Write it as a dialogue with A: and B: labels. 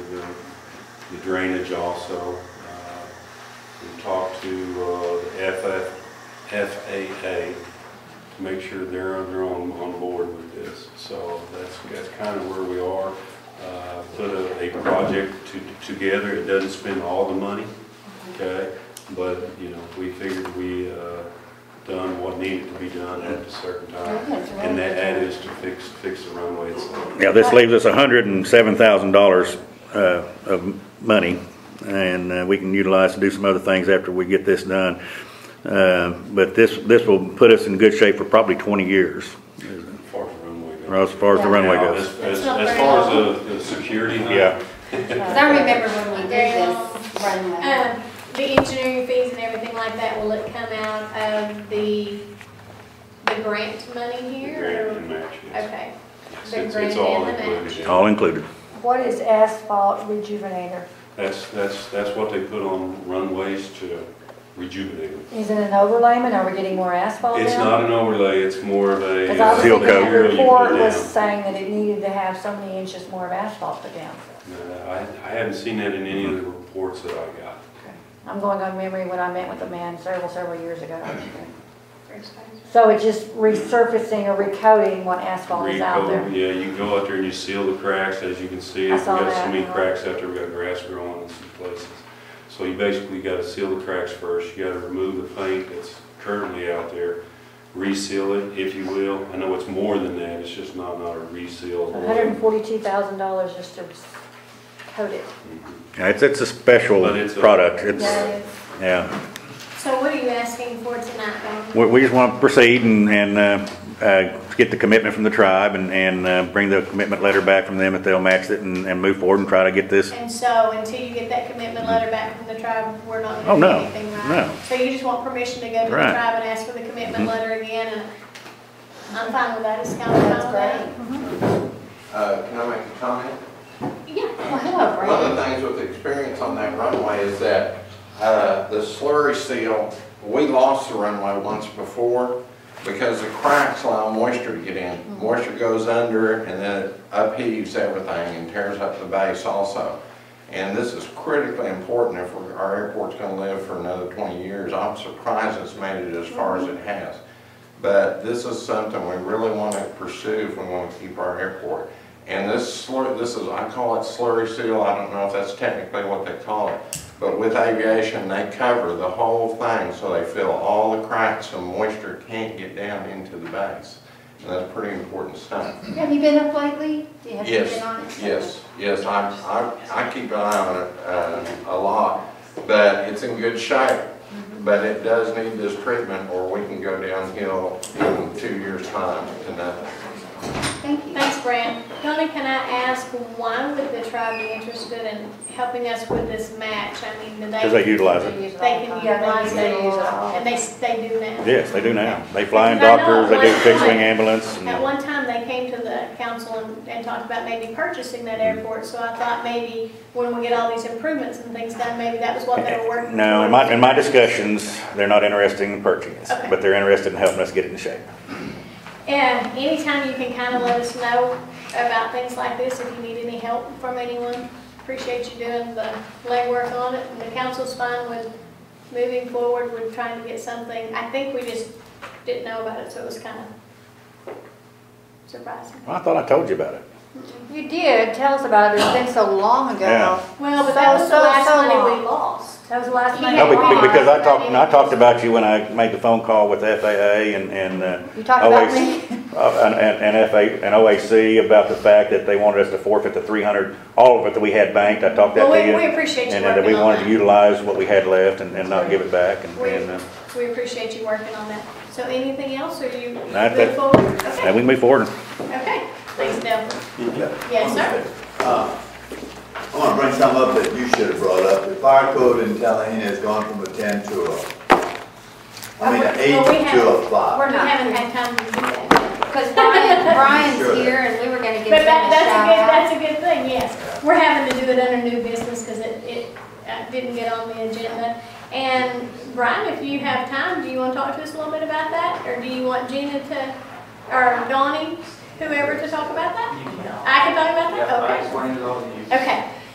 A: the drainage also. Uh, We talked to uh, the FF FAA to make sure they're, they're on, on board with this. So that's, that's kind of where we are. Uh, Put a, a project to- together, it doesn't spend all the money, okay? But, you know, we figured we uh, done what needed to be done at a certain time.
B: Okay, so
A: And that that is to fix, fix the runway itself.
C: Yeah, this leaves us hundred and seven thousand dollars, uh, of money, and, uh, we can utilize to do some other things after we get this done. Uh, but this, this will put us in good shape for probably twenty years,
A: As far as the runway goes.
C: or as far as the runway goes.
A: As,
B: It's
A: as-
B: not
A: as
B: very
A: far
B: long.
A: as the, the security. huh?
C: Yeah.
B: Because I remember when we did this runway.
D: Um, the engineering fees and everything like that, will it come out of the, the grant money
A: The
D: here?
A: grant
D: or-
A: and match, yes.
D: Okay,
A: Yes,
D: the
A: It's,
D: grant
A: it's all
D: and the
A: included. in it.
C: All included.
E: What is asphalt rejuvenator?
A: That's, that's, that's what they put on runways to rejuvenate them.
E: Is it an overlayment? Are we getting more asphalt now?
A: It's not an overlay, it's more of a.
E: Oh,
A: uh,
E: Because I was
C: Seal
E: thinking that
A: material you put
E: report was
A: down.
E: saying that it needed to have so many inches more of asphalt put down.
A: No, I, I haven't seen that in any of the reports that I got.
E: I'm going on memory when I met with a man several, several years ago.
D: first phase.
E: So it's just resurfacing or recoating what asphalt is out there.
A: Recoat, Yeah, you go out there and you seal the cracks, as you can see.
E: I
A: We've
E: saw
A: got so
E: that,
A: many
E: yeah.
A: cracks out there, we've got grass growing in some places. So you basically gotta seal the cracks first, you gotta remove the paint that's currently out there, reseal it, if you will. I know it's more than that, it's just not, not a reseal.
E: Hundred and forty-two thousand dollars just to coat it.
C: Yeah, It's, it's a special
A: But it's a-
C: product,
D: Yeah,
C: it's,
D: it is.
C: yeah.
D: So what are you asking for tonight, Dawn?
C: We, we just want to proceed and, and, uh, uh, get the commitment from the tribe and, and, uh, bring the commitment letter back from them if they'll match it and, and move forward and try to get this.
D: And so until you get that commitment letter back from the tribe, we're not
C: Oh,
D: gonna
C: no,
D: do anything, right?
C: no.
D: So you just want permission to go to the
C: Right. Mm-hmm.
D: tribe and ask for the commitment letter again, and I'm fine with that, it's kind of fine
E: That's great.
D: with that.
F: Uh, Can I make a comment?
D: Yeah,
B: Well, hello,
F: One of
B: Brandon.
F: the things with the experience on that runway is that uh, the slurry seal, we lost the runway once before because the cracks allow moisture to get in. Moisture goes under and then it upheaves everything and tears up the base also. And this is critically important if we're- our airport's going to live for another 20 years. I'm surprised it's made it as far as it has. But this is something we really want to pursue if we want to keep our airport. And this slur, this is, I call it slurry seal, I don't know if that's technically what they call it. But with aviation, they cover the whole thing, so they fill all the cracks so moisture can't get down into the base. And that's pretty important stuff.
B: Have you been up lately? Have you
F: Yes,
B: been on it?
F: yes, yes, I, I, I keep an eye on it, uh, a lot, but it's in good shape. But it does need this treatment or we can go downhill in two years' time to nothing.
B: Thank you.
D: thanks, Brad. Donna, can I ask, why would the tribe be interested in helping us with this match? I mean, do they?
C: Because they utilize it.
D: They can utilize
E: they use it
D: it,
E: all.
D: and they, s- they do now.
C: Yes, they do now. They fly in
D: Because I know
C: doctors, they do
D: at one
C: fixed wing
D: time-
C: ambulance. and-
D: At one time, they came to the council and, and talked about maybe purchasing that
C: Mm-hmm.
D: airport, so I thought maybe when we get all these improvements and things done, maybe that was what they were working.
C: No, in
D: towards.
C: my, in my discussions, they're not interested in purchasing it,
D: Okay.
C: but they're interested in helping us get it in shape.
D: And anytime you can kind of let us know about things like this, if you need any help from anyone, appreciate you doing the legwork on it. And the council's fine with moving forward with trying to get something. I think we just didn't know about it, so it was kind of surprising.
C: Well, I thought I told you about it.
B: You did. Tell us about it. It's been so long
C: Yeah.
B: ago.
D: Well, but that was the
E: So, so,
D: last
E: so
D: money we
E: long.
D: lost.
E: That was the last
D: He
E: money.
C: No,
D: had
C: be-
D: why?
C: be- because I talked, and I talked about you when I made the phone call with FAA and, and, uh,
B: You talked about
C: OAC
B: me?
C: uh, And, and and FA, and OAC about the fact that they wanted us to forfeit the three hundred, all of it that we had banked, I talked that
D: Well,
C: to you.
D: we, we appreciate you
C: And that we
D: working on
C: wanted to
D: that.
C: utilize what we had left and, and not give it back and,
D: We,
C: and, uh,
D: we appreciate you working on that. So anything else, or you
C: That's
D: move
C: it.
D: forward? Okay,
C: and we can move forward.
D: okay, thanks, Dale.
G: I
D: Yes, sir.
G: want to Uh, bring something up that you should have brought up. The fire code in Tallahassee has gone from a ten to a, I mean, an
D: Uh, Well, we
G: eight
D: have-
G: to a five.
E: Oh,
B: We're
D: We
B: not-
D: haven't had time to do that.
B: Because Brian, Brian's
G: Sure.
B: here and we were gonna
D: But
B: give him a
D: that,
B: shout out.
D: that's a good, that's a good thing, yes. We're having to do it under new business because it, it uh, didn't get on the agenda. And Brian, if you have time, do you want to talk to us a little bit about that? Or do you want Gina to, or Donnie, whoever to talk about that? I can talk about that? Okay.
H: explained it all to you.
D: Okay,